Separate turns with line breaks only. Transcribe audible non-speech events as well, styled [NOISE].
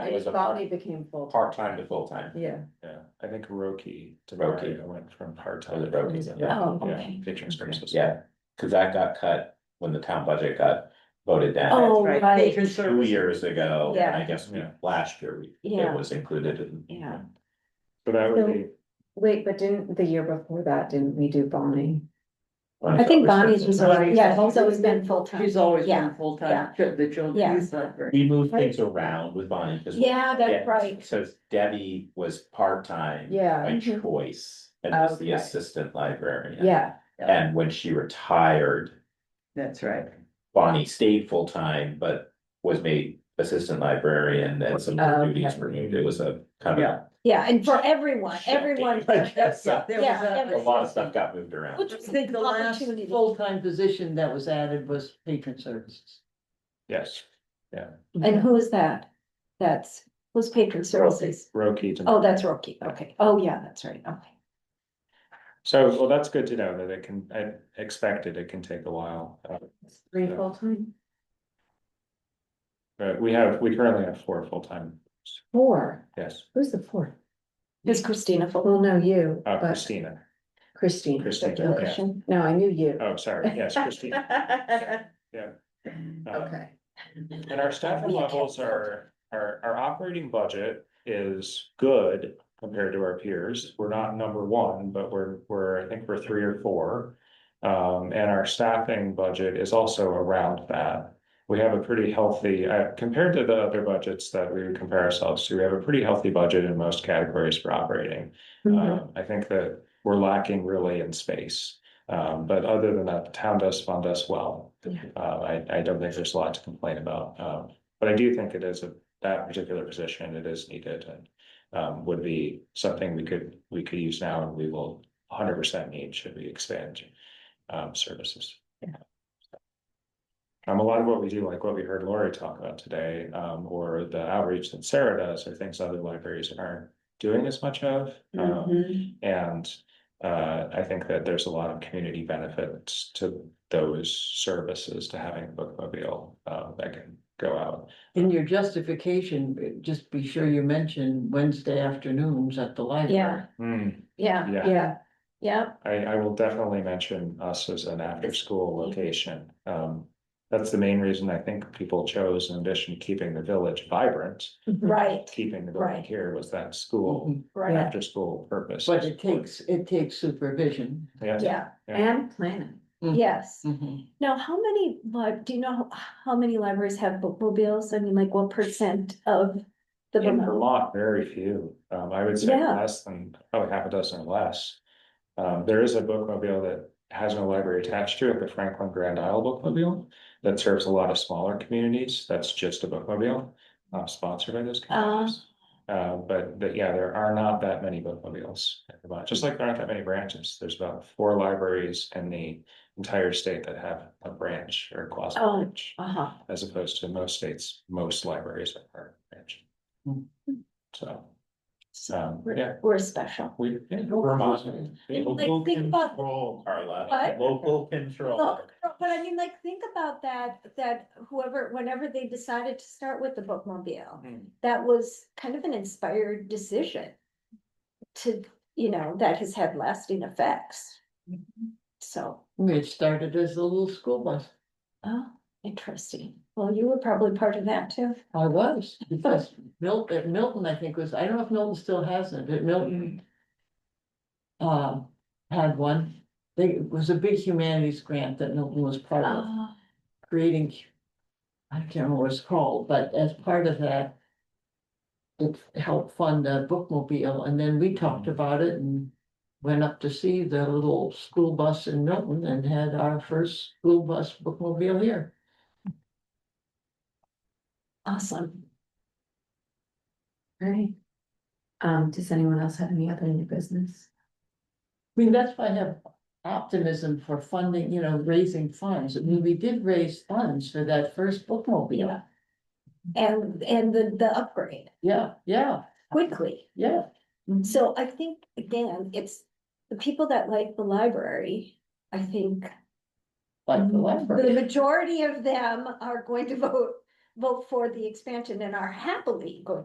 It was a
Botany
part,
became full,
part-time to full-time.
yeah.
Yeah, I think Roki to
Roki.
Mario went from part-time.
Was it Roki? Yeah.
Oh,
Yeah,
okay.
Teaching services.
Yeah, cause that got cut when the town budget got voted down
Oh, right,
Patron
two
service.
years ago, and I guess we,
Yeah.
last year, we, it
Yeah.
was included in.
yeah.
So that would be,
Wait, but didn't, the year before that, didn't we do Bonnie?
I think Bonnie's was always,
Bonnie's-
yeah, he's always been full-time.
She's always
Yeah,
been full-time, ch- the
Yeah.
children, he's not very.
We moved things around with Bonnie, cause.
Yeah, that's right.
Cause Debbie was part-time.
Yeah,
By
Mhm.
choice, and was the
Okay.
assistant librarian.
yeah,
And when she retired,
That's right.
Bonnie stayed full-time, but was made assistant librarian and some of the duties were moved, it was a kind of.
Yeah.
Yeah, and for everyone, everyone,
[LAUGHS] I guess so.
There
Yeah,
was
uh, A
a-
every-
lot of stuff got moved around.
Which-
I think the last
Opportunity.
full-time position that was added was patron services.
yes,
and who is that? That's, who's patron services?
Roki to.
Oh, that's Rocky, okay, oh, yeah, that's right, okay.
So, well, that's good to know that it can, I expected it can take a while. uh,
three full-time,
But we have, we currently have four full-time,
four,
yes,
who's the fourth?
Is Christina full?
Well, no, you,
uh,
but
Christina.
Christine.
Christine,
Okay.
yeah.
No, I knew you.
Oh, sorry, yes, Christina. Uh,
Okay.
And our staffing
We have
levels are, our, our operating budget is good compared to our peers. We're not number one, but we're, we're, I think we're three or four. Um, and our staffing budget is also around that. We have a pretty healthy, uh, compared to the other budgets that we would compare ourselves to, we have a pretty healthy budget in most categories for operating.
Mm-hmm.
Mhm.
Um, I think that we're lacking really in space. Um, but other than that, the town does fund us well.
Yeah.
Uh, I, I don't think there's a lot to complain about. Um, but I do think it is a, that particular position, it is needed and. Um, would be something we could, we could use now and we will hundred percent need should we expand, um, services. Um, a lot of what we do, like what we heard Lori talk about today, um, or the outreach that Sarah does, are things other libraries aren't doing as much of.
Mm-hmm.
Um,
Mm-hmm.
and uh, I think that there's a lot of community benefits to those services to having a bookmobile uh, that can go out.
[LAUGHS] In your justification, just be sure you mention Wednesday afternoons at the library.
Yeah, yeah,
yeah,
Yeah,
yeah,
I, I will definitely mention us as an after-school location. Um, that's the main reason I think people chose, in addition to keeping the village vibrant,
right,
keeping the building
Right.
here was that school,
right,
after-school purpose.
But it takes, it takes supervision.
Yeah,
yeah,
and planning.
yes.
Mhm.
Mm-hmm.
Now, how many, lib- do you know how many libraries have bookmobiles? I mean, like what percent of the
in
Vermont?
Vermont, very few. Um, I would say
Yeah.
less than, probably half a dozen or less. Um, there is a bookmobile that has no library attached to it, the Franklin Grand Isle Bookmobile. That serves a lot of smaller communities. That's just a bookmobile, not sponsored by those communities. Uh, but, but yeah, there are not that many bookmobiles in Vermont, just like there aren't that many branches. There's about four libraries in the entire state that have a branch or quasi
Oh.
branch.
Uh-huh.
As opposed to most states, most libraries are branch.
Hmm.
So,
So
um, yeah,
we're, we're special.
we. yeah,
Local
Vermont.
control.
Like, think about,
Control, Carla.
What?
Local control.
look, but I mean, like, think about that, that whoever, whenever they decided to start with the bookmobile,
Hmm.
that was kind of an inspired decision to, you know, that has had lasting effects. Mm-hmm. So,
It started as a little school bus.
oh, interesting. Well, you were probably part of that too.
I was, because Milton, Milton, I think was, I don't know if Milton still has it, but Milton. Uh, had one, they, it was a big humanities grant that Milton was part of,
Ah,
creating. I can't remember what it's called, but as part of that. It helped fund a bookmobile, and then we talked about it and. Went up to see the little school bus in Milton and had our first school bus bookmobile here.
awesome.
Right. Um, does anyone else have any other new business?
I mean, that's why I have optimism for funding, you know, raising funds. I mean, we did raise funds for that first bookmobile.
Yeah. And, and the, the upgrade
Yeah, yeah,
quickly.
yeah.
So I think, again, it's the people that like the library, I think
Like the
the
library.
majority of them are going to vote, vote for the expansion and are happily going